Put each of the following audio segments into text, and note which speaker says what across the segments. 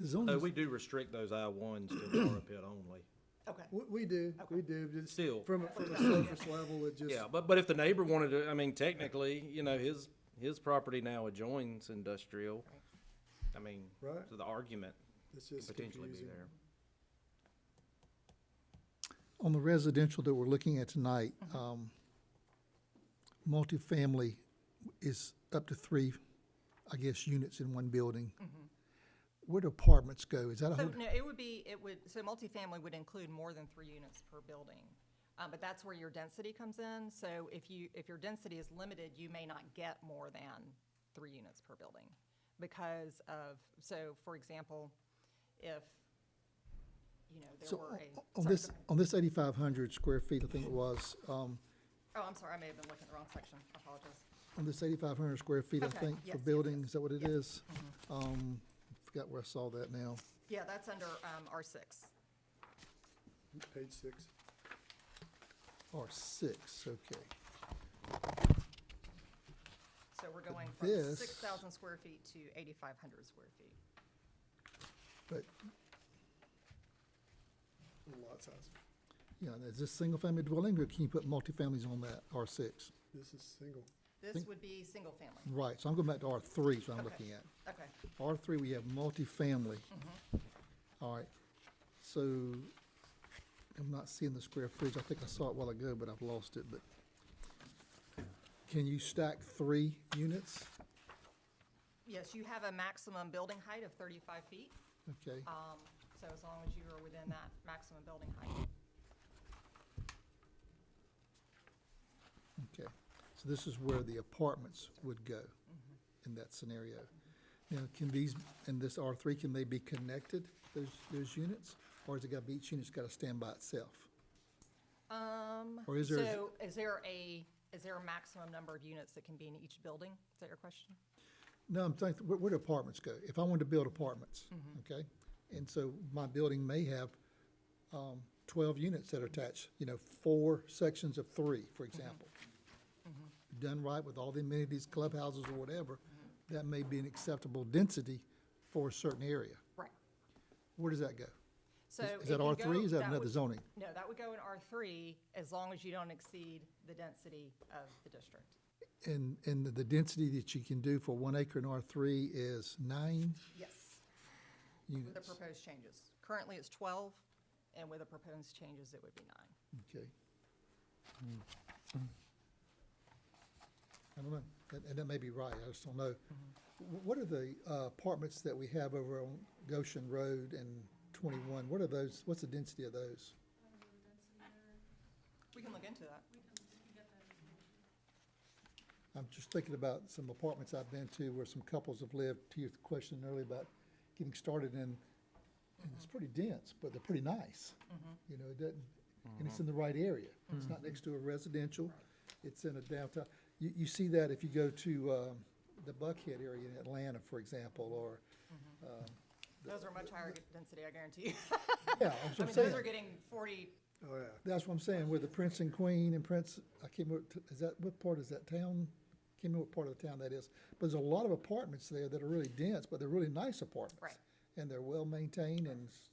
Speaker 1: The
Speaker 2: Though
Speaker 1: zoning,
Speaker 2: we do restrict those I ones to borrow pit only.
Speaker 3: Okay.
Speaker 1: we, we do, we do, just
Speaker 2: Still.
Speaker 1: from, a- from a surface level, it just,
Speaker 2: Yeah, but, but if the neighbor wanted to, I mean, technically, you know, his, his property now adjoins industrial. I mean,
Speaker 1: Right.
Speaker 2: so the argument
Speaker 1: it's
Speaker 2: could
Speaker 1: just
Speaker 2: potentially be
Speaker 1: confusing.
Speaker 2: there.
Speaker 4: On the residential that we're looking at tonight,
Speaker 3: Mm-hmm.
Speaker 4: um, multifamily is up to three, I guess, units in one building. Where do apartments go? Is that a
Speaker 3: Mm-hmm. So,
Speaker 4: whole,
Speaker 3: no, it would be, it would, so multifamily would include more than three units per building. Uh, but that's where your density comes in. So if you, if your density is limited, you may not get more than three units per building. Because of, so for example, if, you know,
Speaker 4: so
Speaker 3: there were
Speaker 4: on-
Speaker 3: a.
Speaker 4: on
Speaker 3: sorry,
Speaker 4: this,
Speaker 3: go ahead.
Speaker 4: on this eighty-five hundred square feet, I think it was, um,
Speaker 3: Oh, I'm sorry, I may have been looking at the wrong section. I apologize.
Speaker 4: on this eighty-five hundred square feet, I
Speaker 3: Okay,
Speaker 4: think,
Speaker 3: yes,
Speaker 4: for
Speaker 3: yes,
Speaker 4: buildings,
Speaker 3: yes. Mm-hmm.
Speaker 4: is that what it
Speaker 3: Yeah.
Speaker 4: is? Um, forgot where I saw that now.
Speaker 3: Yeah, that's under, um, R six.
Speaker 1: Page six.
Speaker 4: R six, okay.
Speaker 3: So we're going from
Speaker 4: this-
Speaker 3: six thousand square feet to eighty-five hundred square feet.
Speaker 4: But,
Speaker 1: Lot size.
Speaker 4: you know, is this single-family dwelling, or can you put multifamilies on that R six?
Speaker 1: This is single.
Speaker 3: This
Speaker 4: Think-
Speaker 3: would be single family.
Speaker 4: Right, so I'm going back to R three, so I'm
Speaker 3: Okay.
Speaker 4: looking at.
Speaker 3: Okay.
Speaker 4: R three, we have multifamily. All right, so I'm not seeing the square footage. I think I saw it a while ago, but I've lost it, but. Can you stack three units?
Speaker 3: Yes, you have a maximum building height of 35 feet,
Speaker 4: Okay,
Speaker 3: um, so as long as you are within that maximum building height.
Speaker 4: okay. So this is where the apartments would go in that scenario. Now, can these, in this R three, can they be connected, those, those units? Or is it got, to be each unit's got to stand by itself?
Speaker 3: Um,
Speaker 4: Or is there-
Speaker 3: So is there a, is there a maximum number of units that can be in each building? Is that your question?
Speaker 4: No, I'm thinking, where, where do apartments go? If I wanted to build apartments,
Speaker 3: Mm-hmm.
Speaker 4: okay? And so my building may have, um, twelve units that are attached, you know, four sections of three, for
Speaker 3: Mm-hmm.
Speaker 4: example. Done right with all the amenities, clubhouses or whatever,
Speaker 3: Mm-hmm.
Speaker 4: that may be an acceptable density for a certain area.
Speaker 3: Right.
Speaker 4: Where does that go?
Speaker 3: So.
Speaker 4: Is-
Speaker 3: if
Speaker 4: Is that
Speaker 3: you
Speaker 4: R three?
Speaker 3: go-
Speaker 4: Is that another
Speaker 3: would-
Speaker 4: zoning?
Speaker 3: No, that would go in R3 as long as you don't exceed the density of the district.
Speaker 4: And, and the- the density that you can do for one acre in R three is nine
Speaker 3: Yes, with the
Speaker 4: units,
Speaker 3: proposed changes. Currently, it's 12, and with the proposed changes, it would be nine.
Speaker 4: okay? Hmm. I don't know, and, and that may be right, I just don't know. Wh- What are the uh, apartments that we have over on Goshen Road and twenty-one, what are those, what's the density of those?
Speaker 3: We can look into that.
Speaker 4: I'm just thinking about some apartments I've been to where some couples have lived, to your question earlier about getting started in, and it's pretty dense, but they're pretty nice.
Speaker 3: Mm-hmm.
Speaker 4: You know, it doesn't, and it's in the right area. It's not next to a residential, it's in a downtown. You, you see that if you go to, um, the Buckhead area in Atlanta, for example, or, um,
Speaker 3: Those are much higher density, I guarantee you.
Speaker 4: yeah, that's
Speaker 3: I
Speaker 4: what
Speaker 3: mean,
Speaker 4: I'm
Speaker 3: those
Speaker 4: saying.
Speaker 3: are getting 40,
Speaker 1: Oh, yeah.
Speaker 4: That's what I'm saying, where the Prince and Queen and Prince, I can't remember, t- is that, what part is that town? Can't remember what part of the town that is. But there's a lot of apartments there that are really dense, but they're really nice apartments.
Speaker 3: Right.
Speaker 4: And they're well-maintained and, s-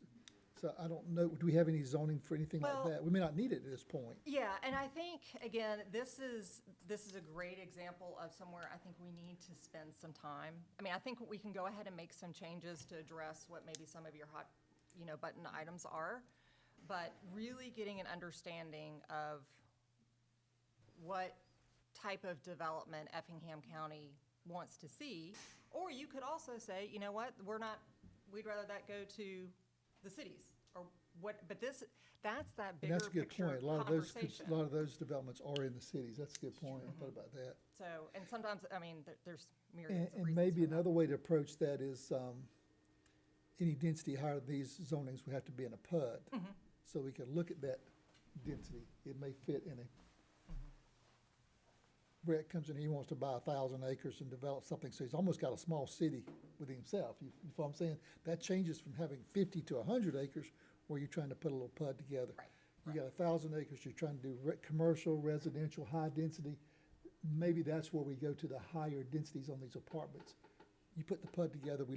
Speaker 4: so I don't know, do we have any zoning for anything like
Speaker 3: Well-
Speaker 4: that? We may not need it at this point.
Speaker 3: Yeah, and I think, again, this is, this is a great example of somewhere I think we need to spend some time. I mean, I think we can go ahead and make some changes to address what maybe some of your hot, you know, button items are. But really getting an understanding of what type of development Effingham County wants to see. Or you could also say, you know what, we're not, we'd rather that go to the cities or what, but this, that's that
Speaker 4: And
Speaker 3: bigger
Speaker 4: that's a good
Speaker 3: picture
Speaker 4: point. A lot of those, cons-
Speaker 3: conversation.
Speaker 4: a lot of those developments are in the cities. That's a good point. I thought about that.
Speaker 3: So, and sometimes, I mean, there- there's
Speaker 4: And,
Speaker 3: myriads of reasons.
Speaker 4: and maybe
Speaker 3: for that.
Speaker 4: another way to approach that is, um, any density higher than these zonings would have to be in a PUD. So we can look at that density. It may fit in a. Brett comes in, he wants to buy a thousand acres and develop something, so he's almost got a small city with himself. You, you follow what I'm saying? That changes from having fifty to a hundred acres where you're trying to put a little PUD together.
Speaker 3: Right,
Speaker 4: You got a thousand acres, you're trying to do re- commercial, residential, high density maybe that's where we go to the higher densities on these apartments. You put the PUD together, we